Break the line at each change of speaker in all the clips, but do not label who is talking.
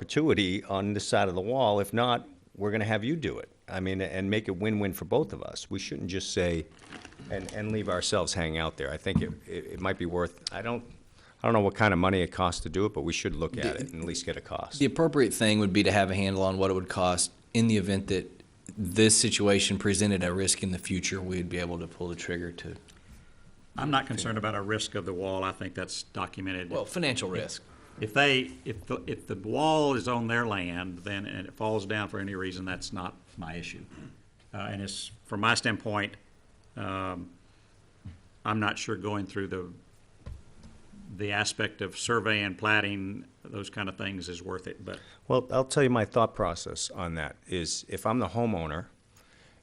perpetuity on this side of the wall. If not, we're gonna have you do it. I mean, and make it win-win for both of us. We shouldn't just say, and, and leave ourselves hanging out there. I think it, it, it might be worth, I don't, I don't know what kind of money it costs to do it, but we should look at it and at least get a cost.
The appropriate thing would be to have a handle on what it would cost in the event that this situation presented a risk in the future, we'd be able to pull the trigger to,
I'm not concerned about a risk of the wall. I think that's documented.
well, financial risk.
If they, if, the if the wall is on their land, then, and it falls down for any reason, that's not my issue. Uh, and it's, from my standpoint, um, I'm not sure going through the, the aspect of survey and plating, those kind of things is worth it, but
Well, I'll tell you my thought process on that is if I'm the homeowner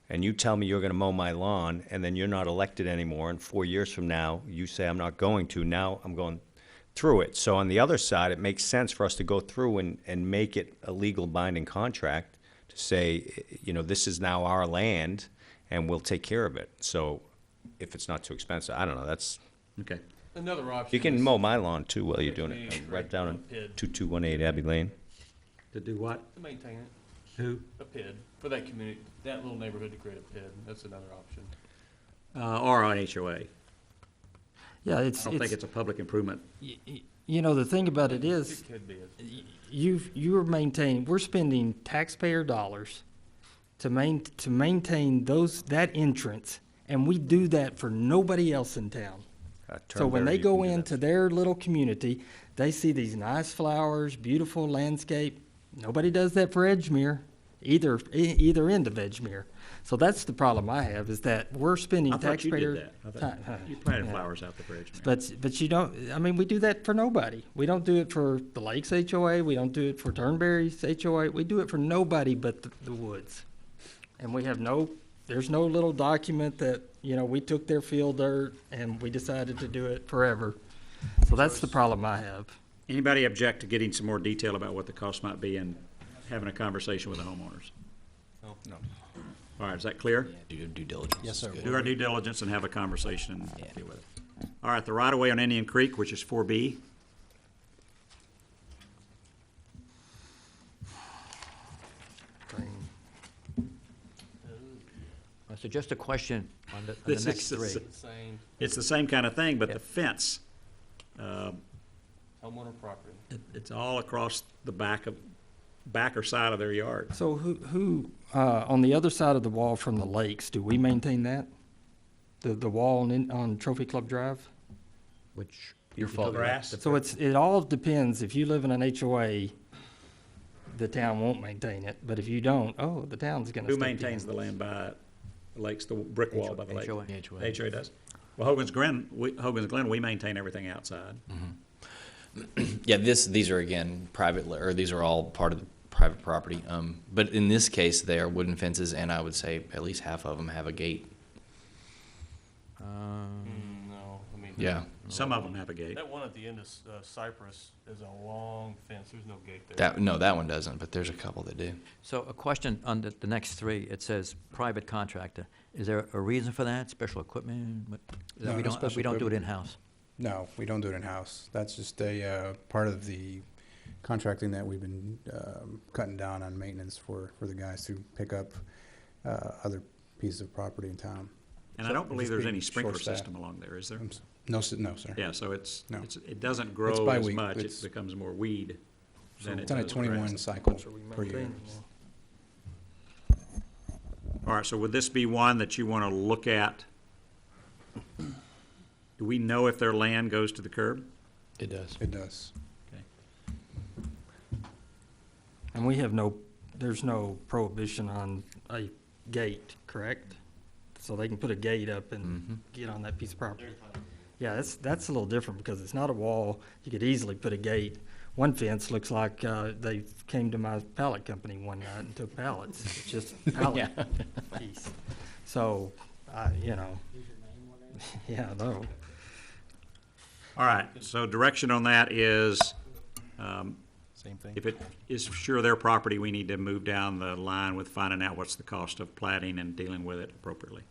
and you tell me you're gonna mow my lawn and then you're not elected anymore and four years from now, you say I'm not going to, now I'm going through it. So on the other side, it makes sense for us to go through and, and make it a legal binding contract to say, eh, you know, this is now our land and we'll take care of it. So if it's not too expensive, I don't know, that's,
Okay.
Another option.
you can
is-
mow my lawn too while you're doing
Yes,
it.
ma'am.
Right down in two-two-one-eight Abbey Lane.
To do what?
To maintain it,
Who?
a PID, for that community, that little neighborhood to create a PID, that's another option.
Uh, or an HOA. I
Yeah, it's,
don't think
it's,
it's a public improvement.
y- y- you know, the thing about it is,
It could be, a-
you've, you're maintaining, we're spending taxpayer dollars to main, to maintain those, that entrance, and we do that for nobody else in town.
Uh,
So when
Turnberry,
they
you can
go
do that.
into their little community, they see these nice flowers, beautiful landscape. Nobody does that for Edgemere, either, e- either end of Edgemere. So that's the problem I have, is that we're spending
I thought you did
taxpayer.
that. I
ti- huh.
thought- You planted
Yeah.
flowers out the bridge, man.
But, but you don't, I mean, we do that for nobody. We don't do it for the Lakes HOA, we don't do it for Turnberry's HOA, we do it for nobody but the, the woods. And we have no, there's no little document that, you know, we took their field dirt and we decided to do it forever. So that's the problem I have.
Anybody object to getting some more detail about what the cost might be and having a conversation with the homeowners? No. All right, is that clear?
Due due diligence. Yes, sir.
Do our due diligence and have a conversation and deal with it. All right, the right-of-way on Indian Creek, which is four B.
Uh, So just a question on the, on the
This
next
is the
three.
same-
same
It's the same kind of thing, but the fence,
homeowner property.
it- it's all across the back of, back or side of their yard.
So who, who, uh, on the other side of the wall from the lakes, do we maintain that? The, the wall on, on Trophy Club Drive?
Which, your fault.
Grass,
So it's, it all depends, if you live in an HOA, the town won't maintain it, but if you don't, oh, the town's gonna.
who
step in.
maintains the land by the lakes, the brick wall by the lake?
HOA.
The HOA does. Well, Hogan's Glen, we, Hogan's Glen, we maintain everything outside.
Yeah, this, these are again, private, li- or these are all part of the private property. Um, but in this case, they are wooden fences and I would say at least half of them have a gate.
No, I mean.
Yeah,
Some of them have a gate.
That one at the end of S- uh, Cypress is a long fence, there's no gate there.
that, no, that one doesn't, but there's a couple that do.
So a question on the, the next three, it says private contractor. Is there a reason for that? Special equipment? What- that
No,
we
no
don't-
special
We don't do it
equipment.
in-house.
No, we don't do it in-house. That's just a uh, part of the contracting that we've been um, cutting down on maintenance for, for the guys to pick up uh, other pieces of property in town.
And I don't believe there's any
Just being
sprinkler
short-staffed.
system along there, is there?
I'm s- No, s- no, sir.
Yeah, so it's,
No.
it's, it doesn't grow
by
as
week.
much, it
It's-
becomes more weed than it
It's on a
does
twenty-one
grass.
cycle
So we
per year.
maintain it.
All right, so would this be one that you wanna look at? Do we know if their land goes to the curb?
It does.
It does.
And we have no, there's no prohibition on a gate, correct? So they can put a gate up and get on that piece of property. Yeah, that's, that's a little different because it's not a wall. You could easily put a gate. One fence looks like, uh, they came to my pallet company one night and took pallets, It's just pallet piece. So, I, you know. Yeah, no.
All right, so direction on that is, um,
Same thing.
if it is sure their property, we need to move down the line with finding out what's the cost of platting and dealing with it appropriately.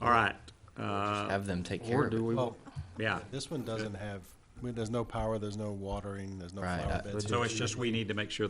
All right, uh,
Have them take care
Or
of it.
do we,
Well,
yeah,
this one doesn't have I mean, there's no power, there's no watering, there's no
Right,
flower
I-
beds.
So it's just, we need to make sure